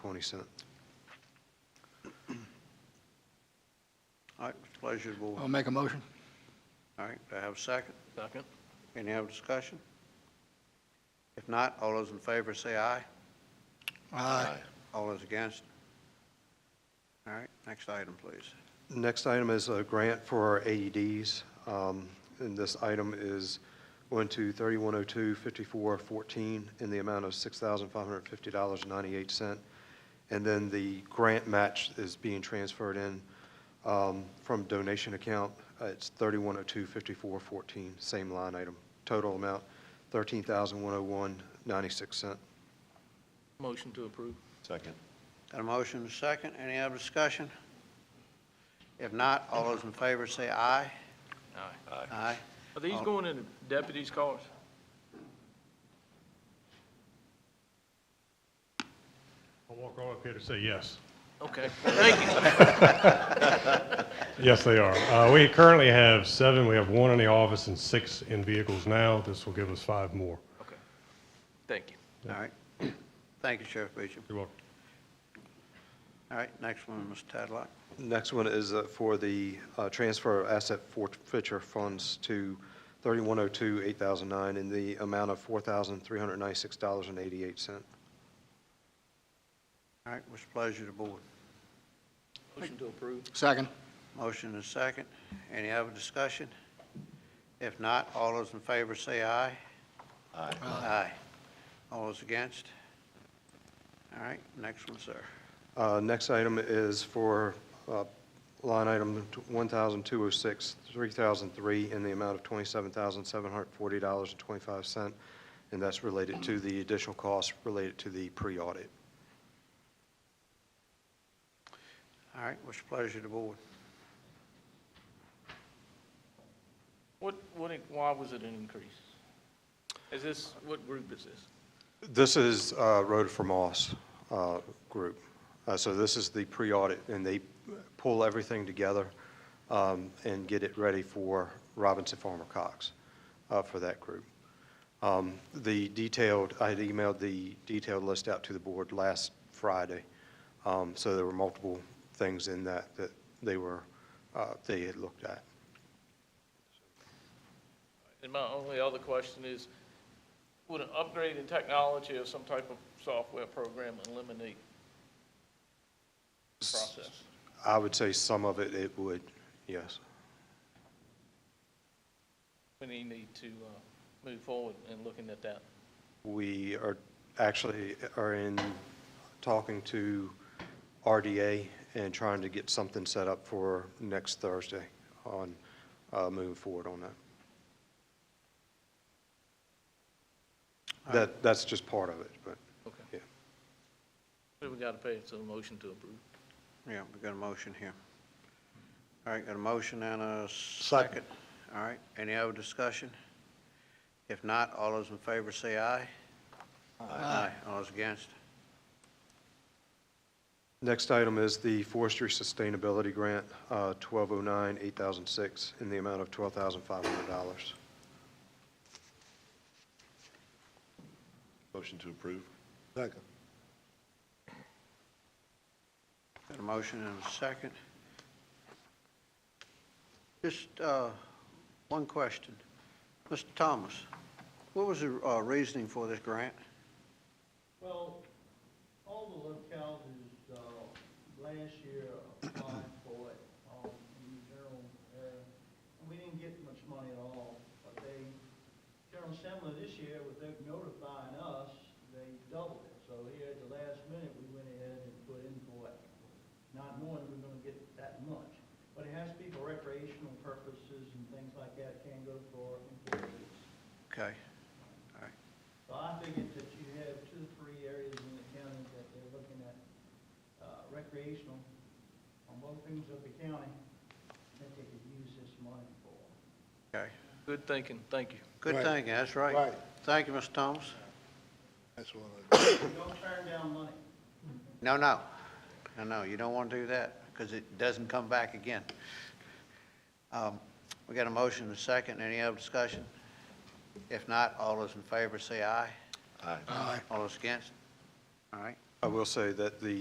20 cent. All right, it's pleasure to board. I'll make a motion. All right, do I have a second? Second. Any other discussion? If not, all those in favor say aye. Aye. All those against? All right, next item, please. Next item is a grant for our AEDs. Um, And this item is going to 3102-5414 in the amount of $6,550.98. And then the grant match is being transferred in um, from donation account. Uh, It's 3102-5414, same line item. Total amount, $13,101.96. Motion to approve. Second. Got a motion and a second. Any other discussion? If not, all those in favor say aye. Aye. Aye. Are these I'll- going in the deputies' cars? I'll walk right up here to say yes. Okay, thank you. Yes, they are. Uh, We currently have seven. We have one in the office and six in vehicles now. This will give us five more. Okay, thank you. All right. Thank you, Sheriff Beecham. You're welcome. All right, next one, Mr. Tadlock. Next one is uh, for the uh, transfer of asset forfeiture funds to 3102-8009 in the amount of $4,396.88. All right, what's the pleasure to board? Motion to approve. Second. Motion and a second. Any other discussion? If not, all those in favor say aye. Aye. Aye. All those against? All right, next one, sir. Uh, Next item is for uh, line item 1,206-3003 in the amount of $27,740.25, and that's related to the additional costs related to the pre-audit. All right, what's the pleasure to board? What, what, why was it an increase? Is this, what group is this? This is uh, Rhoda for Moss uh, Group. Uh, So this is the pre-audit, and they pull everything together um, and get it ready for Robinson Farmer Cox uh, for that group. Um, The detailed, I had emailed the detailed list out to the board last Friday, Um, so there were multiple things in that that they were, uh, they had looked at. And my only other question is, would an upgrade in technology or some type of software program eliminate the process? I would say some of it, it would, yes. We need need to uh, move forward in looking at that. We are actually are in talking to RDA and trying to get something set up for next Thursday on uh, moving forward on that. That, that's just part of it, but, Okay. yeah. We got to pay, it, so a motion to approve. Yeah, we got a motion here. All right, got a motion and a second. All right, any other discussion? If not, all those in favor say aye. Aye. All those against? Next item is the Forestry Sustainability Grant, uh, 1209-8006, in the amount of $12,500. Motion to approve? Got a motion and a second. Just uh, one question. Mr. Thomas, what was the uh, reasoning for this grant? Well, all the localities, uh, last year applied for it, um, in the general area. And we didn't get much money at all, but they, General Assembly this year, with them notifying us, they doubled it. So here at the last minute, we went ahead and put in for it, not knowing we were gonna get that much. But it has to be for recreational purposes and things like that, can't go for employees. Okay, So I figured that you have two, or three areas in the county that they're looking at uh, recreational on both ends of the county that they could use this money for. okay. Good thinking, thank you. Good Right. thinking, that's right. Right, Thank you, Mr. Thomas. that's what I. Don't turn down money. No, no, no, no, you don't want to do that, because it doesn't come back again. Um, We got a motion and a second, any other discussion? If not, all those in favor say aye. Aye. Aye. All those against? All right, I will say that the